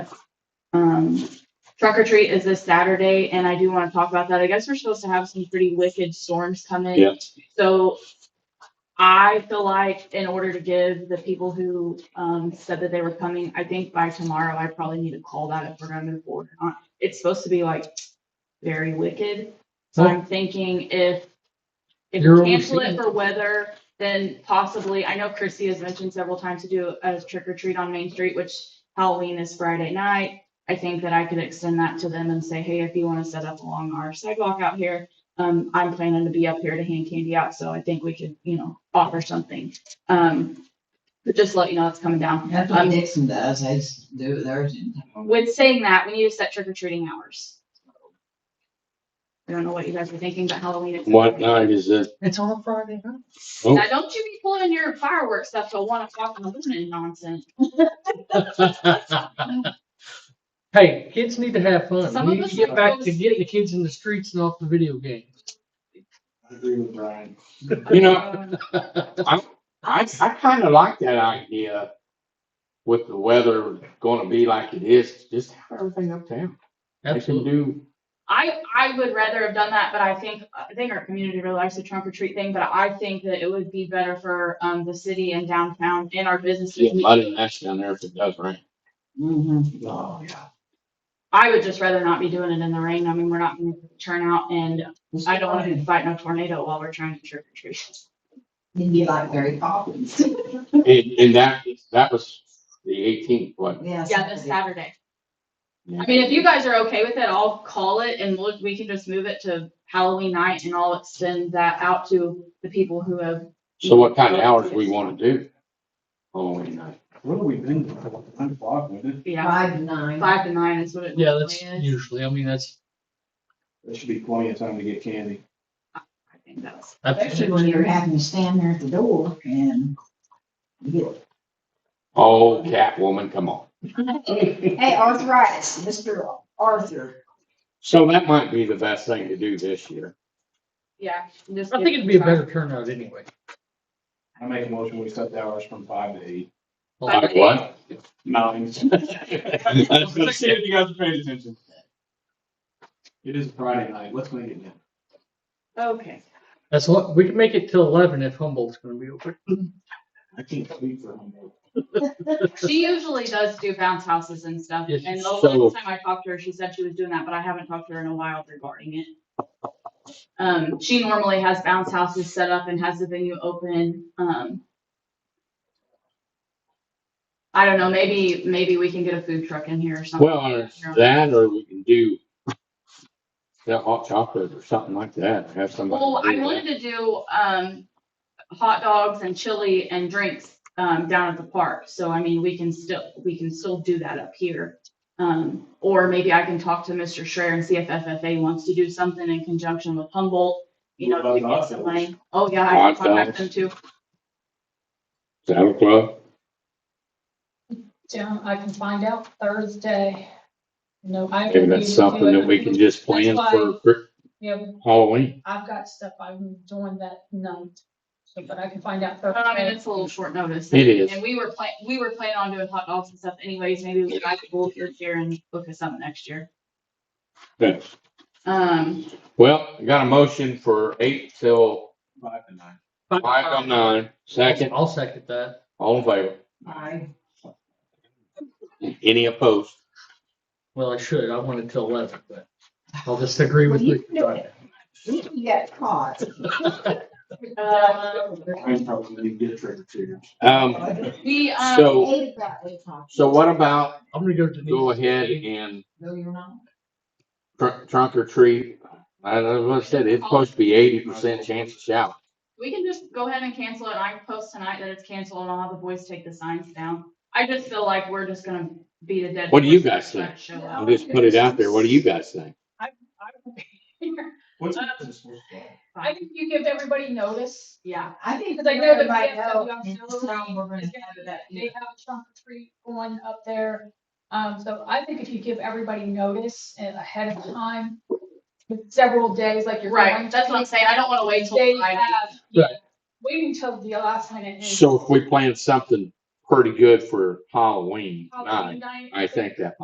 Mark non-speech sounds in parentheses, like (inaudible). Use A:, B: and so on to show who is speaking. A: Um, truck or treat is this Saturday, and I do wanna talk about that. I guess we're supposed to have some pretty wicked storms coming.
B: Yeah.
A: So I feel like in order to give the people who, um, said that they were coming, I think by tomorrow, I probably need to call that if we're gonna move forward or not. It's supposed to be like very wicked, so I'm thinking if, if
C: You're
A: we cancel it
C: overseeing
A: for weather, then possibly, I know Chrissy has mentioned several times to do a trick or treat on Main Street, which Halloween is Friday night. I think that I could extend that to them and say, hey, if you wanna set up along our sidewalk out here, um, I'm planning to be up here to hand candy out, so I think we could, you know, offer something. Um, but just let you know it's coming down.
D: That's what Dixon does, they just do it theirs.
A: With saying that, we need to set trick or treating hours. I don't know what you guys were thinking, but Halloween is.
B: What night is it?
C: It's on a Friday night.
B: Oh.
A: Now, don't you be pulling your fireworks stuff till one o'clock in the morning nonsense.
C: Hey, kids need to have fun.
A: Some
C: We
A: of
C: need
A: us
C: to
A: are
C: get back to
A: close.
C: getting the kids in the streets and off the video games.
E: I agree with Brian.
B: You know, I, I, I kinda like that idea with the weather gonna be like it is, just have everything uptown. They can
C: Absolutely.
B: do,
A: I, I would rather have done that, but I think, I think our community really likes the trunk or treat thing, but I think that it would be better for, um, the city and downtown and our
B: yeah,
A: businesses.
B: mud ash down there if it does rain.
D: Mm-hmm.
B: Oh, yeah.
A: I would just rather not be doing it in the rain. I mean, we're not gonna turn out and I don't wanna be fighting a tornado while we're trying to trick or treat.
D: It'd be like Mary (laughs) Poppins.
B: And, and that, that was the eighteenth,
A: (laughs)
B: what?
A: Yeah, this Saturday. I mean, if you guys are okay with it, I'll call it and look, we can just move it to Halloween night and I'll extend that out to the people who have.
B: So what kind of hours we wanna do? uh, Halloween night.
E: What have we been, with? nine o'clock, wouldn't it?
A: Yeah,
D: Five to nine.
A: five to nine is what it
C: Yeah,
A: normally
C: that's
A: is.
C: usually, I mean, that's,
E: There should be plenty of time to get candy.
A: I think that's,
C: that's,
D: Especially when you're having to stand there at the door and you
B: Oh, Catwoman, come on.
D: get, hey, arthritis, Mr. Arthur.
B: So that might be the best thing to do this year.
A: yeah. just
C: I
A: give
C: think
A: it
C: it'd be a
A: five.
C: better turnout anyway.
E: I make a motion, we set the hours from five to eight.
A: Five
B: Like
A: to
B: what?
E: (laughs) Nine.
B: That's
E: Let's see if you guys are paying attention. It is Friday night, let's make it now.
C: (laughs)
A: Okay,
C: That's what, we can make it till eleven if Humboldt's gonna be open.
E: I can't sleep for a moment.
A: she usually does do bounce houses and stuff,
C: Yes,
A: and the
B: so-
A: last time I talked to her, she said she was doing that, but I haven't talked to her in a while regarding it. Um, she normally has bounce houses set up and has the venue open, um. I don't know, maybe, maybe we can get a food truck in here or something.
B: Well, or that or we can do the hot chocolate or something like that, have somebody.
A: Well, I
B: do that.
A: wanted to do, um, hot dogs and chili and drinks, um, down at the park. So I mean, we can still, we can still do that up here. Um, or maybe I can talk to Mr. Schreier and see if FFA wants to do something in conjunction with Humboldt. You
E: What
A: know, to
E: about
A: get some
E: hot dogs?
A: money. Oh, yeah, I can
B: Hot
A: contact
B: dogs.
A: them too.
B: Saddle Club,
F: Yeah, I can find out Thursday. No, I.
B: maybe that's something that we can just plan
F: That's
B: for for
F: Yeah,
B: Halloween.
F: I've got stuff I'm doing that night, so, but I can find out Thursday.
A: Um, I mean, it's a little short notice.
B: It is.
A: And we were plan, we were planning on doing hot dogs and stuff anyways. Maybe we could book your here and book us up next year.
B: Good.
A: Um,
B: Well, I got a motion for eight till
E: Five to nine.
B: five on nine, second,
C: I'll second that.
B: all in favor,
D: Aye.
B: any opposed?
C: Well, I should, I want it till eleven, but I'll just agree with
D: Well,
C: you.
D: you can do it. You got caught.
C: Um,
A: uh,
E: I'm probably gonna get trick or treaters.
B: Um,
A: the, um.
B: So-
D: Eight about eight o'clock.
B: so what about
C: (laughs) I'm gonna go to. the-
B: go ahead and
D: No, you're not.
B: tr- trunk or treat? I don't know what I said, it's supposed to be eighty percent chance of shower.
A: We can just go ahead and cancel it. I post tonight that it's canceled and I'll have the boys take the signs down. I just feel like we're just gonna be the dead.
B: What do you
A: horse
B: guys think?
A: that show
B: I'll
A: up.
B: just put it out there, what do you guys think?
E: What's?
F: Uh,
E: this one?
F: (laughs) I think you give everybody notice.
A: Yeah,
D: I think
F: Because I know the
D: everybody
F: kids that
D: know
F: we also
D: it's time we're gonna
F: It's
D: have
F: gonna-
D: that.
F: They have a trunk or treat going up there. Um, so I think if you give everybody notice and ahead of time, with several days, like you're. going
A: right. That's
F: to-
A: what I'm saying. I don't wanna wait till
F: They
A: Friday.
F: have, yeah,
C: Right.
F: waiting till the last minute. and-
B: So if we plan something pretty good for Halloween night,
F: Halloween night.
B: I think that